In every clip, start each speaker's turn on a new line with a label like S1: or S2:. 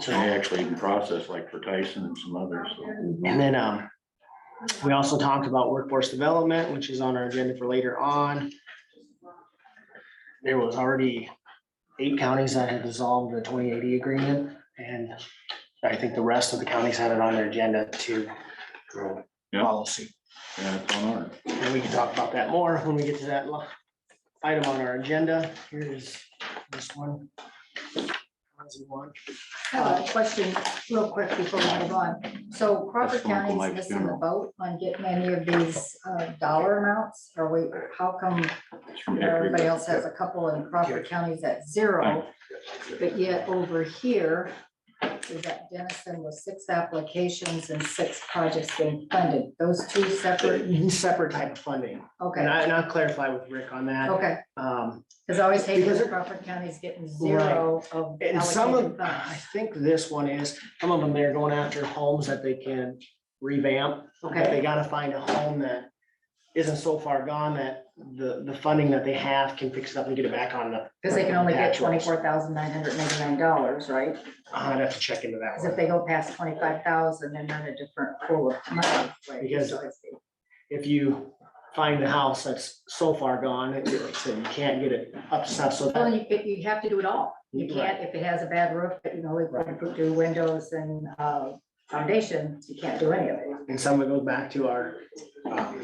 S1: So they actually can process like for Tyson and some others, so.
S2: Mm-hmm.
S3: And then, um, we also talked about workforce development, which is on our agenda for later on. There was already eight counties that had dissolved the twenty eighty agreement, and I think the rest of the counties had it on their agenda to grow
S1: Yeah.
S3: policy.
S1: Yeah, it's on our,
S3: And we can talk about that more when we get to that lo- item on our agenda. Here is this one. As you want.
S2: I have a question real quick before we move on. So Crawford
S1: That's going to my
S2: County's missing the
S1: funeral.
S2: boat on getting any of these uh, dollar amounts? Or we, how come
S1: it's from
S2: everybody
S1: everybody.
S2: else has a couple and Crawford County's at zero? But yet over here, we got Dennison with six applications and six projects being funded. Those two separate,
S3: Separate type of funding. And
S2: okay,
S3: I, and I'll clarify with Rick on that.
S2: okay.
S3: Um,
S2: Because I always hate
S3: Because it-
S2: when Crawford County's getting zero of
S3: And some
S2: allocated
S3: of, I
S2: funds.
S3: think this one is, some of them, they're going after homes that they can revamp. But
S2: Okay,
S3: they gotta find a home that isn't so far gone that the, the funding that they have can fix it up and get it back on the.
S2: because they can only get
S3: Natural.
S2: twenty-four thousand nine hundred ninety-nine dollars, right?
S3: I'd have to check into that
S2: Cause if
S3: one.
S2: they go past twenty-five thousand, they're not a different pool of money. right?
S3: Because-
S2: So it's-
S3: If you find a house that's so far gone, it- it's, you can't get it up, to snuff, so
S2: Well,
S3: that,
S2: you, but you have to do it all. You can't, if it has a bad roof, you know, we've got to do windows and, uh, foundation, you can't do any of it.
S3: and some of it goes back to our, um,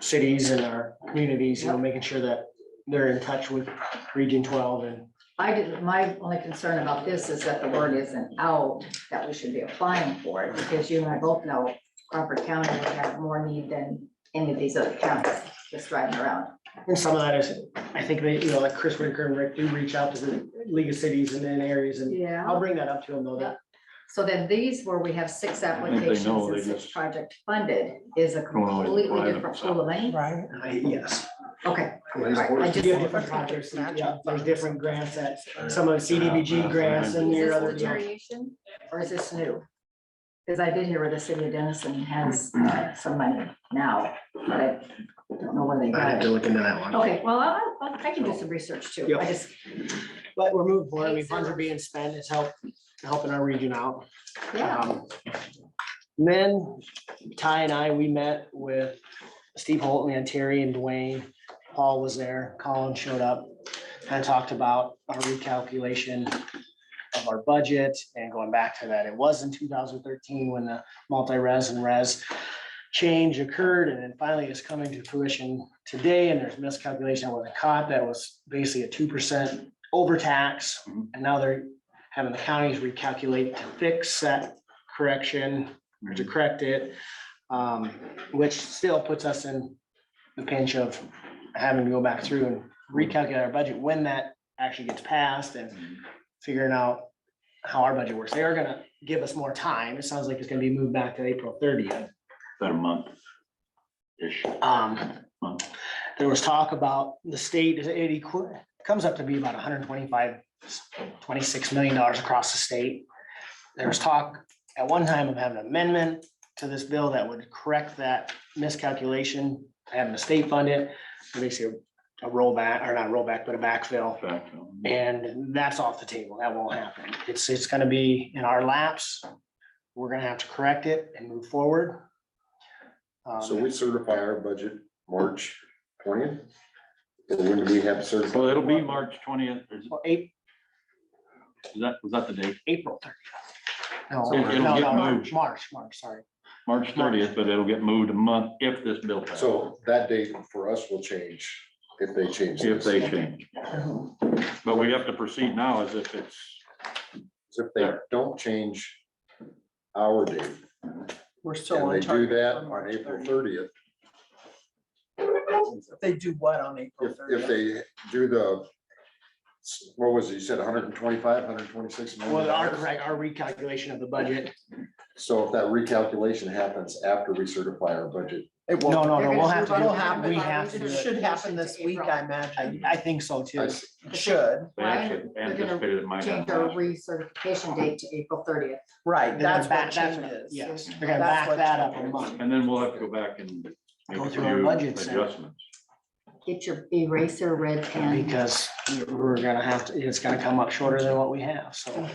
S3: cities and our communities, you know,
S2: Yep.
S3: making sure that they're in touch with Region Twelve and
S2: I did, my only concern about this is that the word isn't out, that we should be applying for it, because you and I both know Crawford County would have more need than any of these other counties just riding around.
S3: And some of that is, I think they, you know, like Chris Winker and Rick do reach out to the League of Cities and then areas and
S2: Yeah.
S3: I'll bring that up to them though. that-
S2: So then these where we have six
S1: think they
S2: applications
S1: know,
S2: and
S1: they
S2: six
S1: just-
S2: project funded is a
S1: Don't always
S2: completely
S1: apply them,
S2: different
S1: so.
S2: pool of money. Right.
S3: I- Yes.
S2: Okay, I
S3: You
S2: just-
S3: have different projects, yeah, there's different grants that, some of the
S1: Yeah,
S3: CDBG
S1: that's
S3: grants
S1: right.
S3: and
S2: is
S3: your
S2: this
S3: other.
S2: the variation or is this new? Because I did hear where the city of Denison has uh, some money now, but I don't know where they
S3: I have
S2: got
S3: to
S2: it.
S3: look into that one.
S2: Okay, well, I, I- I can do some research too.
S3: Yep.
S2: I just,
S3: But we're moving forward. I mean, funds are being spent. It's help, helping our region out.
S2: yeah,
S3: Um, and Then Ty and I, we met with Steve Holton and Terry and Dwayne. Paul was there, Colin showed up, and talked about our recalculation of our budget and going back to that. It was in two thousand thirteen when the multi-res and res change occurred and then finally it's coming to fruition today and there's miscalculation with the caught that was basically a two percent overtax. And now they're having the counties recalculate to fix that correction or to correct it. Um, which still puts us in the pinch of having to go back through and recalculate our budget when that actually gets passed and figuring out how our budget works. They are gonna give us more time. It sounds like it's gonna be moved back to April thirtieth.
S1: About a month. Ish.
S3: Um, there was talk about the state, it equi- comes up to be about 125, 26 million dollars across the state. There was talk at one time of having an amendment to this bill that would correct that miscalculation, having the state fund it, basically a rollback, or not rollback, but a backfill.
S1: Back on.
S3: And that's off the table. That won't happen. It's, it's gonna be in our laps. We're gonna have to correct it and move forward. Um,
S4: So we certify our budget March twentieth? And when do we have certified?
S1: Well, it'll be March twentieth, is
S3: Well, April,
S1: is that, was that the date?
S3: April
S1: So
S3: thirtieth.
S1: it'll
S3: No,
S1: get
S3: no, no,
S1: moved.
S3: March, March, sorry.
S1: March thirtieth, but it'll get moved a month if this bill passes,
S4: So that date for us will change if they change.
S1: if
S4: this.
S1: they change. But we have to proceed now as if it's,
S4: If they don't change our date,
S5: We're still
S4: and
S5: on
S4: they do
S5: target.
S4: that
S5: for
S4: on
S5: March
S4: April
S5: 30th.
S4: thirtieth,
S5: They do what on April
S4: if, if
S5: thirtieth?
S4: they do the, what was it, you said 125, 126 million
S3: Well, our,
S4: dollars?
S3: correct- our recalculation of the budget.
S4: So if that recalculation happens after we certify our budget,
S5: It
S3: No,
S5: won't,
S3: no, no, we'll have to
S5: It'll
S3: do,
S5: happen.
S3: we have to do
S5: it
S3: it.
S5: should happen this week,
S3: I,
S5: I imagine.
S3: I think so
S4: I
S3: too.
S4: s-
S5: It Should,
S1: they
S2: Right,
S1: actually
S2: they're gonna
S1: anticipated it might
S2: change our
S1: happen.
S2: recertification date to April thirtieth.
S5: right,
S3: They're gonna
S5: that's
S3: back-
S5: what
S3: that's
S5: changes.
S3: Yes, they're gonna back
S5: That's what
S3: that up a
S5: changes.
S3: month.
S1: And then we'll have to go back and make
S3: Go
S1: a
S3: through our
S1: few
S3: budgets and-
S1: adjustments.
S2: Get your eraser red pen.
S3: Because we're gonna have to, it's gonna come up shorter than what we have, so.